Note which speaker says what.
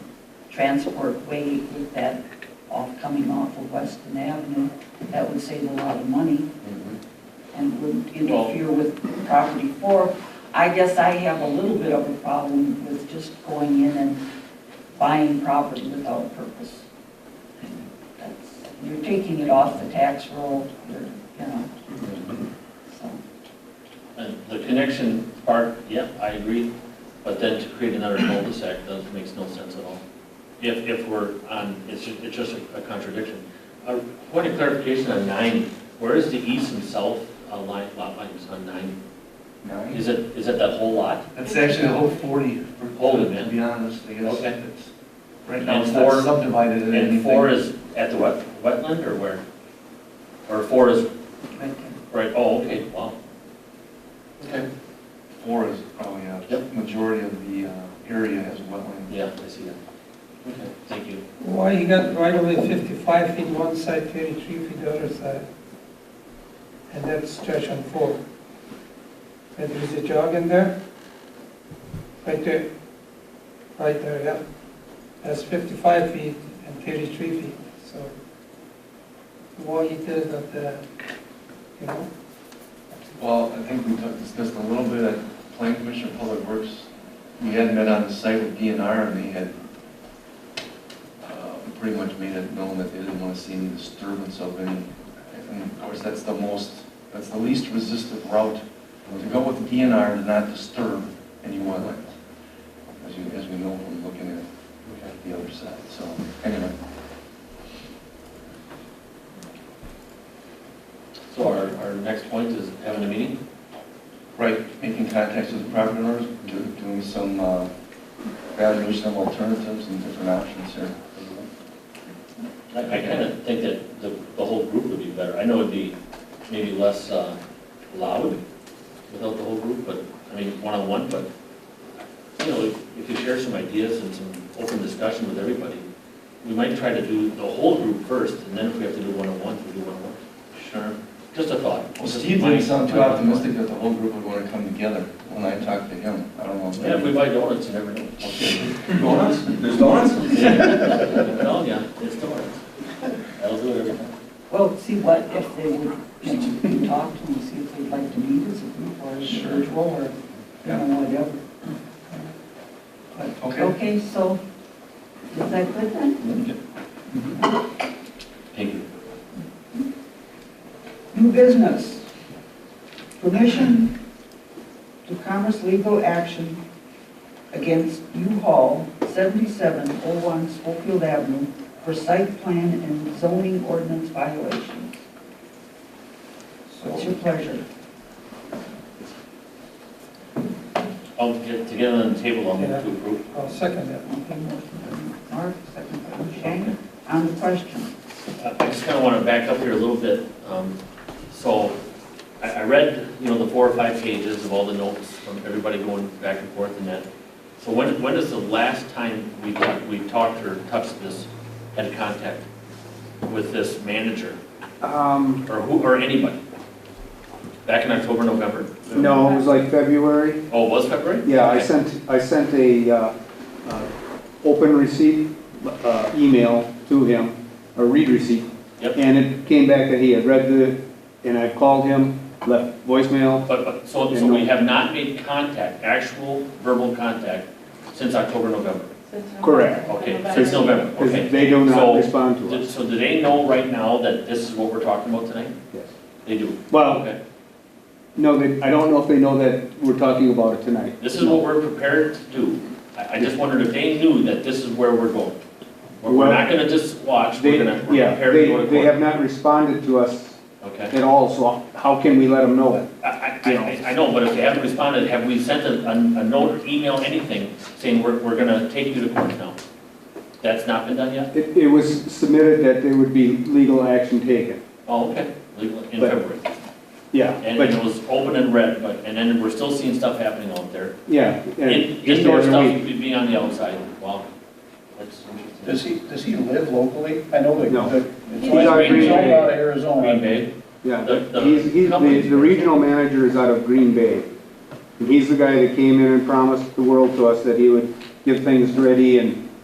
Speaker 1: transport way with that off, coming off of Weston Avenue. That would save a lot of money and wouldn't interfere with property four. I guess I have a little bit of a problem with just going in and buying property without purpose. That's- You're taking it off the tax roll, you're, you know, so.
Speaker 2: And the connection part, yeah, I agree, but then to create another cul-de-sac, that makes no sense at all. If, if we're on, it's, ju- it's just a contradiction. Uh, Point of clarification on nine, where is the east and south uh, line, lot lines on nine?
Speaker 3: Nine?
Speaker 2: Is it, is it that whole lot?
Speaker 3: That's actually a whole forty. for-
Speaker 2: Hold it, man.
Speaker 3: To be honest, I guess.
Speaker 2: Okay.
Speaker 3: it's- Right now,
Speaker 2: And
Speaker 3: it's not
Speaker 2: four-
Speaker 3: subdivided in anything.
Speaker 2: And four is at the wet, wetland or where? Or four is,
Speaker 1: right
Speaker 2: right, oh, okay, wow. Okay.
Speaker 3: Four is probably a
Speaker 2: Yep.
Speaker 3: majority of the uh, area has wetland.
Speaker 2: Yeah, I see that. Okay, thank you.
Speaker 4: Why you got right away fifty-five feet one side, thirty-three feet the other side? And that stretch on four. And there is a jog in there? Right there, right there, yeah. That's fifty-five feet and thirty-three feet, so. Why you did it not there, you know?
Speaker 3: Well, I think we talked- discussed a little bit at Plan Commission Public Works. We had met on the site with DNR and they had uh, pretty much made it known that they didn't want to see any disturbance of any. And of course, that's the most, that's the least resistive route to go with DNR to not disturb any wetlands, as you, as we know from looking at
Speaker 2: Okay.
Speaker 3: the other side. So anyway,
Speaker 2: So our, our next point is having a meeting?
Speaker 3: right, making contacts with the property owners, do- doing some uh, evaluation of alternatives and different options here.
Speaker 2: I, I kind of think that the, the whole group would be better. I know it'd be maybe less uh, loud without the whole group, but, I mean, one-on-one, but, you know, if- if you share some ideas and some open discussion with everybody, we might try to do the whole group first, and then if we have to do one-on-one, we do one-on-one.
Speaker 3: Sure.
Speaker 2: Just a thought.
Speaker 3: Well, Steve didn't sound too optimistic that the whole group would want to come together when I talked to him. I don't know.
Speaker 2: Yeah, if we buy donuts, you never know.
Speaker 3: Donuts? There's donuts?
Speaker 2: No, yeah, it's donuts. That'll do it every time.
Speaker 1: Well, see what, if they would, you know, we can talk to them, see if they'd like to meet as a group or as an
Speaker 3: Sure.
Speaker 1: individual or, you know, whatever. But,
Speaker 3: Okay.
Speaker 1: okay, so, is that good then?
Speaker 2: Thank you.
Speaker 1: New business. Permission to commerce legal action against U-Haul, 7701 Schofield Avenue for site plan and zoning ordinance violations. What's your pleasure?
Speaker 2: I'll get together on the table, I'll move to approve.
Speaker 4: I'll second that.
Speaker 1: Okay, motion by Mark, second by Shane. On the question,
Speaker 2: Uh, I I just kind of want to back up here a little bit. Um, So I, I read, you know, the four or five pages of all the notes from everybody going back and forth and that. So when, when is the last time we, got- we talked or touched this, had contact with this manager
Speaker 5: Um,
Speaker 2: or who, or anybody? Back in October, November?
Speaker 5: no, it was like February.
Speaker 2: Oh, it was February?
Speaker 5: Yeah, I
Speaker 2: Okay.
Speaker 5: sent, I sent a, uh, uh, open receipt, uh, email to him, a read receipt.
Speaker 2: Yep.
Speaker 5: And it came back that he had read the, and I called him, left voicemail.
Speaker 2: But, but, so, so we have not made contact, actual verbal contact since October, November?
Speaker 5: Correct.
Speaker 2: Okay, since November,
Speaker 5: Because
Speaker 2: okay.
Speaker 5: they do
Speaker 2: So-
Speaker 5: not respond to
Speaker 2: Did-
Speaker 5: us.
Speaker 2: So do they know right now that this is what we're talking about tonight?
Speaker 5: Yes.
Speaker 2: They do?
Speaker 5: Well,
Speaker 2: Okay.
Speaker 5: no, they, I don't know if they know that we're talking about it tonight.
Speaker 2: This is what we're prepared to do. I, I just wondered if they knew that this is where we're going. We're we're not gonna just watch,
Speaker 5: They,
Speaker 2: we're gonna, we're
Speaker 5: yeah,
Speaker 2: prepared to go
Speaker 5: they,
Speaker 2: to
Speaker 5: they have
Speaker 2: court.
Speaker 5: not responded to us
Speaker 2: Okay.
Speaker 5: at all, so how can we let them know it?
Speaker 2: I, I, I- I know, but if they haven't responded, have we sent a, a a note, or email, anything, saying we're, we're gonna take you to court now? That's not been done yet?
Speaker 5: It, it was submitted that there would be legal action taken.
Speaker 2: Oh, okay, legal, in
Speaker 5: But-
Speaker 2: February.
Speaker 5: Yeah,
Speaker 2: And
Speaker 5: but,
Speaker 2: it was open and red, but, and then we're still seeing stuff happening out there.
Speaker 5: yeah. and
Speaker 2: In-
Speaker 5: just the
Speaker 2: Indoor
Speaker 5: other
Speaker 2: stuff
Speaker 5: week.
Speaker 2: would be on the outside, wow. That's interesting.
Speaker 6: Does he, does he live locally? I know that.
Speaker 5: No.
Speaker 6: that-
Speaker 5: He's
Speaker 6: It's always
Speaker 5: our
Speaker 6: been
Speaker 5: Green
Speaker 6: sold
Speaker 5: Bay.
Speaker 6: out of Arizona.
Speaker 2: Green Bay?
Speaker 5: Yeah,
Speaker 2: The- the
Speaker 5: he's, he's, the,
Speaker 2: company's-
Speaker 5: the regional manager is out of Green Bay. And he's the guy that came in and promised the world to us that he would get things ready and